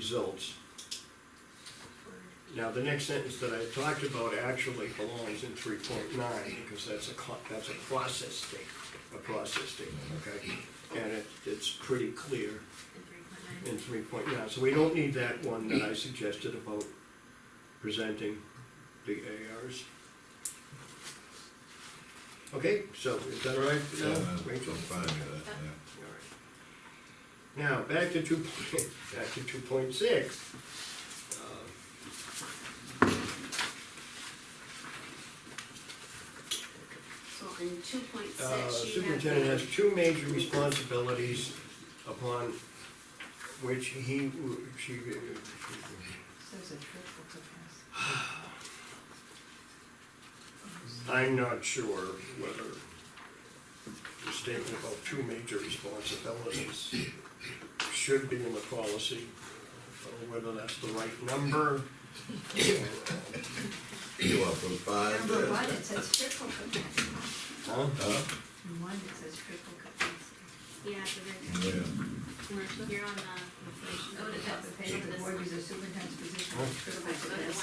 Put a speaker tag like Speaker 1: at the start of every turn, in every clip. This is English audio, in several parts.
Speaker 1: results. Now, the next sentence that I talked about actually belongs in three point nine, because that's a, co- that's a process statement, a process statement, okay? And it, it's pretty clear in three point nine, so we don't need that one that I suggested about presenting the ARs. Okay, so is that all right, uh,
Speaker 2: Yeah, that's
Speaker 1: Rachel?
Speaker 2: fine, yeah, yeah.
Speaker 1: All right. Now, back to two point, back to two point six.
Speaker 3: So in two point six, you
Speaker 1: Uh,
Speaker 3: have.
Speaker 1: Superintendent has
Speaker 3: the-
Speaker 1: two major responsibilities upon which he, w- she,
Speaker 4: There's a triple to pass.
Speaker 1: I'm not sure whether the statement about two major responsibilities should be in the policy, or whether that's the right number.
Speaker 2: You want from five
Speaker 4: Number one,
Speaker 2: to?
Speaker 4: it says triple capacity.
Speaker 1: Huh?
Speaker 2: Huh?
Speaker 4: And one, it says triple capacity.
Speaker 3: Yeah, the,
Speaker 2: Yeah,
Speaker 3: the, you're on the.
Speaker 4: Go to top of the page, the board is a superintendent's position
Speaker 1: Huh?
Speaker 4: with triple
Speaker 3: Go to Oh, the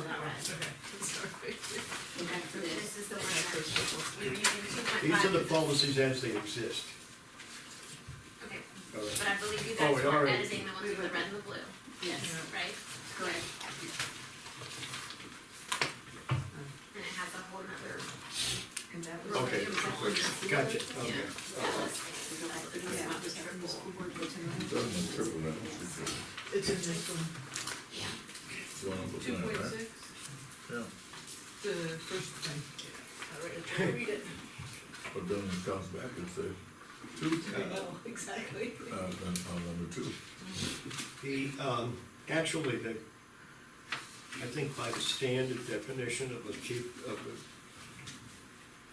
Speaker 4: capacity.
Speaker 3: Oh, that has the blue and red.
Speaker 4: Go back to
Speaker 3: This
Speaker 4: this.
Speaker 3: is the one that, you're using two point
Speaker 1: These are
Speaker 3: five.
Speaker 1: the policies as they exist.
Speaker 3: Okay,
Speaker 1: All right.
Speaker 3: but I believe you
Speaker 1: Oh,
Speaker 3: guys
Speaker 1: we
Speaker 3: were
Speaker 1: already-
Speaker 3: editing the ones with the red and the blue,
Speaker 4: Yes,
Speaker 3: right?
Speaker 4: correct.
Speaker 3: And it has a whole nother.
Speaker 4: And that was.
Speaker 1: Okay,
Speaker 3: It was a whole nother-
Speaker 1: Gotcha, okay.
Speaker 3: Yeah. That was, that's the reason why it was
Speaker 4: From the
Speaker 3: triple.
Speaker 4: school board goes in the-
Speaker 2: doesn't it triple that?
Speaker 5: It's in this one,
Speaker 3: Yeah.
Speaker 2: You wanna put
Speaker 5: two
Speaker 2: that,
Speaker 5: point
Speaker 2: right?
Speaker 5: six,
Speaker 2: Yeah.
Speaker 5: the first thing. All right, I read it.
Speaker 2: But then it comes back and says, two, uh,
Speaker 5: Oh, Exactly.
Speaker 2: uh, then on number two.
Speaker 1: The, um, actually, the, I think by the standard definition of a chief, of a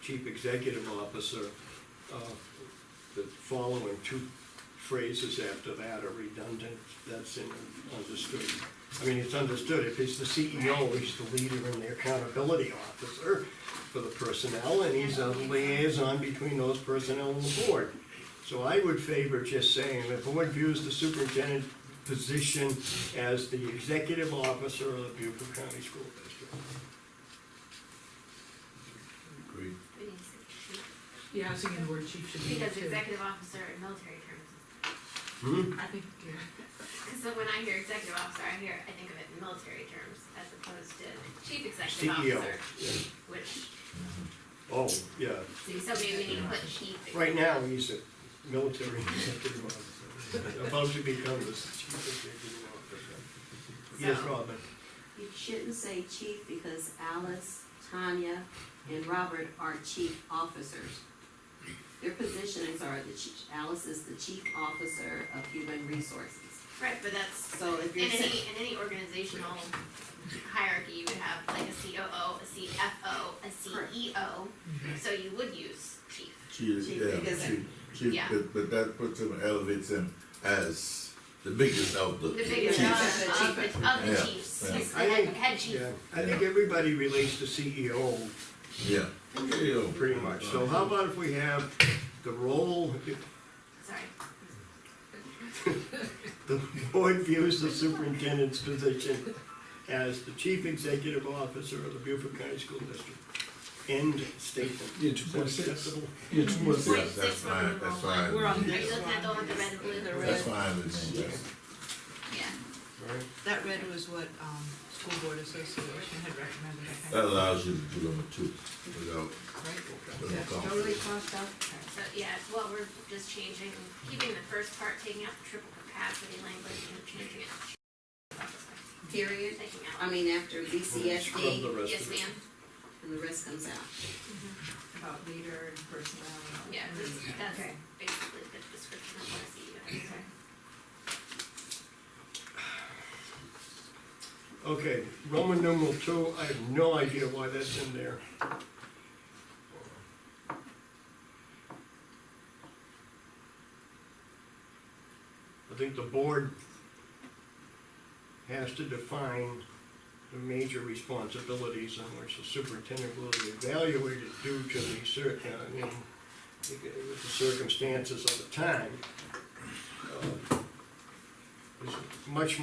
Speaker 1: chief executive officer, uh, the following two phrases after that are redundant, that's in, understood. I mean, it's understood, if he's the CEO, he's the leader and the accountability officer for the personnel, and he's a liaison between those personnel and the board. So I would favor just saying, the board views the superintendent position as the executive officer of the Beaufort County School District.
Speaker 2: Agreed.
Speaker 3: We need to-
Speaker 5: Yeah, I was thinking the word chief should be there
Speaker 3: Because
Speaker 5: too.
Speaker 3: executive officer in military terms,
Speaker 1: Hmm?
Speaker 5: I think, yeah.
Speaker 3: because when I hear executive officer, I hear, I think of it in military terms as opposed to chief executive
Speaker 6: E
Speaker 1: CEO.
Speaker 3: officer,
Speaker 1: yeah.
Speaker 3: which,
Speaker 1: Oh, yeah.
Speaker 3: so maybe we need to put chief.
Speaker 1: Right now, he's a military executive officer, about to become the chief executive officer. Yes,
Speaker 3: So-
Speaker 1: Robin?
Speaker 6: You shouldn't say chief because Alice, Tanya, and Robert are chief officers. Their positions are the chief, Alice is the chief officer of human resources.
Speaker 3: Right, but that's,
Speaker 6: So if
Speaker 3: in
Speaker 6: you're
Speaker 3: any,
Speaker 6: saying,
Speaker 3: in any organizational hierarchy, you would have like a COO, a CFO, a CEO, so you would use chief.
Speaker 2: She is,
Speaker 6: Chief
Speaker 2: yeah,
Speaker 6: biggest-
Speaker 2: she, she,
Speaker 3: Yeah.
Speaker 2: but, but that puts him, elevates him as the biggest of the
Speaker 3: The biggest
Speaker 2: chiefs.
Speaker 6: Chief.
Speaker 3: of, of the, of the
Speaker 2: Yeah,
Speaker 3: chiefs,
Speaker 2: yeah.
Speaker 3: is the
Speaker 1: I think-
Speaker 3: head chief.
Speaker 1: Yeah, I think everybody relates to CEO
Speaker 2: Yeah. Yeah.
Speaker 1: pretty much. So how about if we have the role,
Speaker 3: Sorry,
Speaker 1: The board views the superintendent's position as the chief executive officer of the Beaufort County School District. End statement.
Speaker 7: Yeah, two point six.
Speaker 1: Acceptable?
Speaker 7: Yeah, two point
Speaker 2: Yeah,
Speaker 3: Point six,
Speaker 2: that's
Speaker 7: six.
Speaker 3: we're
Speaker 2: fine,
Speaker 3: on the
Speaker 2: that's
Speaker 3: wrong
Speaker 2: fine.
Speaker 3: one.
Speaker 5: We're on
Speaker 3: are
Speaker 5: the-
Speaker 3: you looking at the one with the red and blue?
Speaker 5: The
Speaker 2: That's
Speaker 5: red.
Speaker 2: fine with me, yes.
Speaker 3: Yeah,
Speaker 1: All right.
Speaker 5: That red was what, um, school board association had recommended, I think,
Speaker 2: That allows you to do number two without, without
Speaker 5: right? Yeah.
Speaker 2: conflict.
Speaker 4: Totally crossed out.
Speaker 3: so, yeah, well, we're just changing, keeping the first part, taking out the triple capacity language and changing it,
Speaker 6: period,
Speaker 3: taking
Speaker 6: I
Speaker 3: out,
Speaker 6: mean, after
Speaker 1: Scrub the
Speaker 6: BCSD,
Speaker 1: rest
Speaker 3: yes
Speaker 1: of it.
Speaker 3: ma'am,
Speaker 6: and the rest comes out.
Speaker 4: About leader and personnel. and all
Speaker 3: yeah,
Speaker 4: that.
Speaker 3: that's, that's
Speaker 4: Okay.
Speaker 3: basically the description of what a CEO is.
Speaker 1: Okay, Roman numeral two, I have no idea why that's in there. I think the board has to define the major responsibilities on which the superintendent will be evaluated due to the cir, uh, I mean, with the circumstances of the time. Uh, It's much